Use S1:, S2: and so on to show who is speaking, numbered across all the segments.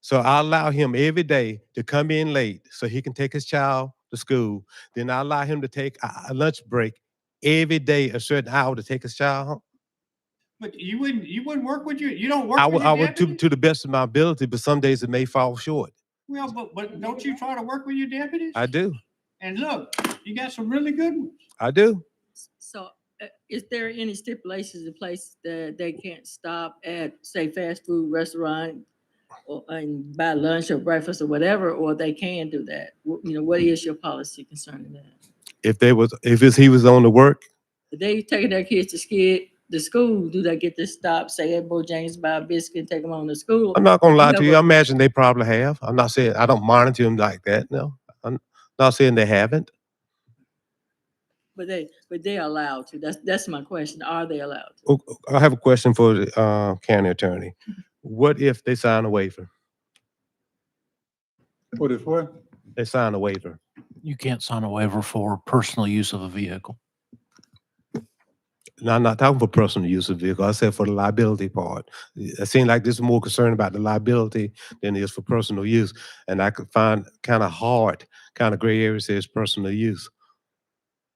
S1: So I allow him every day to come in late so he can take his child to school. Then I allow him to take a a lunch break every day, a certain hour to take his child home.
S2: But you wouldn't, you wouldn't work with you, you don't work
S1: I
S2: with
S1: would,
S2: your
S1: I would, to,
S2: deputy?
S1: to the best of my ability, but some days it may fall short.
S2: Well, but, but don't you try to work with your deputies?
S1: I do,
S2: And look, you got some really good ones.
S1: I do.
S3: So uh, is there any stipulations in place that they can't stop at, say, fast food restaurant or, and buy lunch or breakfast or whatever, or they can do that? Wh- You know, what is your policy concerning that?
S1: If they was, if it's, he was on the work,
S3: If they taking their kids to skid, to school, do they get to stop, say, at Bojangles, buy a biscuit, and take them on to school?
S1: I'm not gonna lie
S3: No,
S1: to you.
S3: but-
S1: I imagine they probably have. I'm not saying, I don't monitor them like that, no. I'm not saying they haven't.
S3: But they, but they are allowed to. That's, that's my question. Are they allowed to?
S1: Oh, oh, I have a question for the uh, county attorney.
S2: Mm-hmm.
S1: What if they sign a waiver?
S4: What is what?
S1: They sign a waiver.
S5: You can't sign a waiver for personal use of a vehicle.
S1: No, I'm not talking for personal use of vehicle. I said for the liability part. It seemed like this is more concerned about the liability than it is for personal use. And I could find kind of hard, kind of gray area says personal use.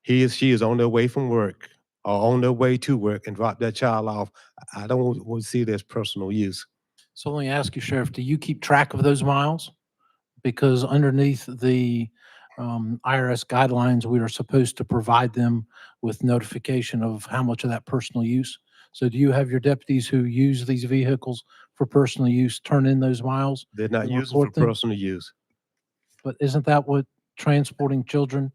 S1: He is, she is on their way from work or on their way to work and drop their child off. I I don't want want to see it as personal use.
S5: So let me ask you, Sheriff, do you keep track of those miles? Because underneath the um, IRS guidelines, we are supposed to provide them with notification of how much of that personal use. So do you have your deputies who use these vehicles for personal use turn in those miles?
S1: They're not
S5: You
S1: using for
S5: report them?
S1: personal use.
S5: But isn't that what transporting children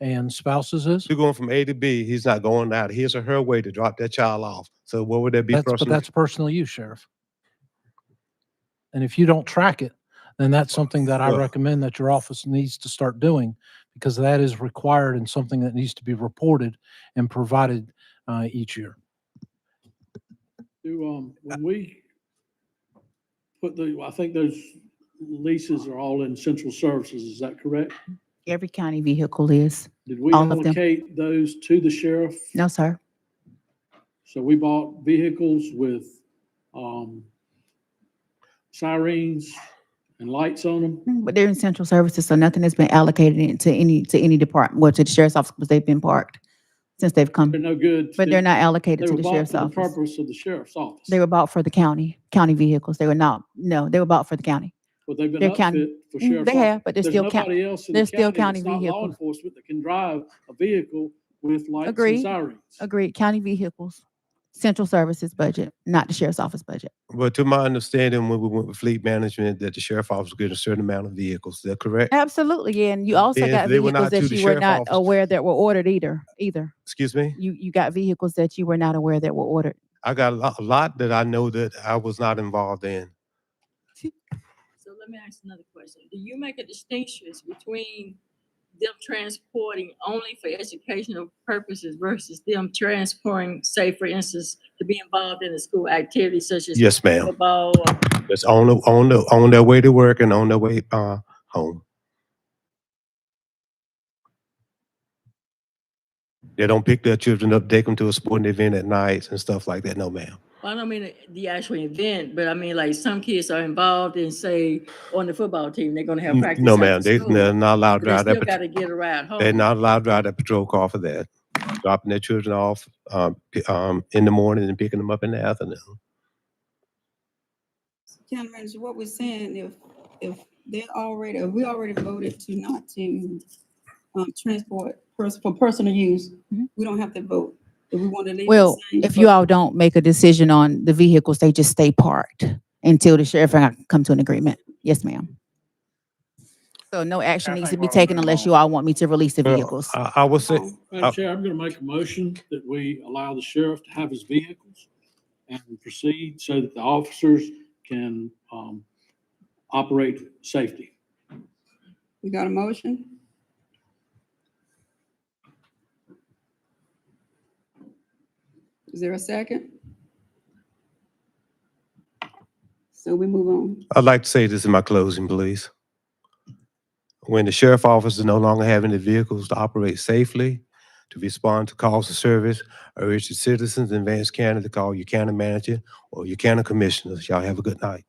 S5: and spouses is?
S1: You're going from A to B. He's not going out his or her way to drop that child off. So what would that be
S5: That's, but
S1: personal?
S5: that's personal use, Sheriff. And if you don't track it, then that's something that I
S1: Well-
S5: recommend that your office needs to start doing because that is required and something that needs to be reported and provided uh, each year.
S6: Do, um, when we put the, I think those leases are all in central services, is that correct?
S7: Every county vehicle is.
S6: Did we
S7: All of them.
S6: allocate those to the sheriff?
S7: No, sir.
S6: So we bought vehicles with, um, sirens and lights on them?
S7: Mm, But they're in central services, so nothing has been allocated in- to any, to any department, well, to the sheriff's office, because they've been parked since they've come.
S6: They're no good.
S7: But
S6: to-
S7: they're not allocated
S6: They
S7: to
S6: were
S7: the
S6: bought
S7: sheriff's
S6: for the
S7: office.
S6: purpose of the sheriff's office.
S7: They were bought for the county, county vehicles. They were not, no, they were bought for the county.
S6: But they've been
S7: they're county-
S6: outfit for
S7: Mm,
S6: sheriff's.
S7: They
S6: office.
S7: have, but they're
S6: There's
S7: still county.
S6: nobody else in
S7: they're
S6: the
S7: still
S6: county that's
S7: county
S6: not law
S7: vehicle.
S6: enforcement that can drive a vehicle with lights
S7: Agreed.
S6: and sirens.
S7: Agreed, county vehicles, central services budget, not the sheriff's office budget.
S1: But to my understanding, when we went with fleet management, that the sheriff office was getting a certain amount of vehicles. Is that correct?
S7: Absolutely, yeah, and you also
S1: Then
S7: got
S1: they were
S7: vehicles
S1: not to
S7: that
S1: the
S7: you were
S1: sheriff
S7: not
S1: office.
S7: aware that were ordered either, either.
S1: Excuse me?
S7: You, you got vehicles that you were not aware that were ordered.
S1: I got a lot, a lot that I know that I was not involved in.
S3: So let me ask another question. Do you make a distinction between them transporting only for educational purposes versus them transporting, say, for instance, to be involved in a school activity such as
S1: Yes, ma'am.
S3: football? or-
S1: It's on, the- on, the- on their way to work and on their way, uh, home. They don't pick their children up, take them to a sporting event at nights and stuff like that. No, ma'am.
S3: Well, I don't mean the- the actual event, but I mean like some kids are involved in, say, on the football team, they're gonna have
S1: N-
S3: practice.
S1: No,
S3: after
S1: ma'am. They,
S3: school,
S1: they're not allowed to
S3: but They
S1: drive that.
S3: still
S1: pat-
S3: gotta get a ride home.
S1: They're not allowed to drive that patrol car for that. Dropping their children off, um, p- um, in the morning and picking them up in the afternoon.
S8: County manager, what we're saying, if, if they already, if we already voted to not to, um, transport pers- for personal use,
S7: Mhm.
S8: we don't have to vote. If we want to leave. the
S7: Well,
S8: same,
S7: if you
S8: but
S7: all don't make a decision on the vehicles, they just stay parked until the sheriff and I come to an agreement. Yes, ma'am. So no action needs to be taken unless you all want me to release the
S1: Well,
S7: vehicles. Oh.
S1: I, I would say,
S8: um,
S6: Oh, Madam Chair, I'm going to make a motion that we allow the sheriff to have his vehicles and proceed so that the officers can um, operate safely.
S8: We got a motion? Is there a second? So we move on.
S1: I'd like to say this in my closing, please. When the sheriff office is no longer having the vehicles to operate safely, to respond to calls of service, I urge the citizens in Vance County to call your county manager or your county commissioners. Y'all have a good night.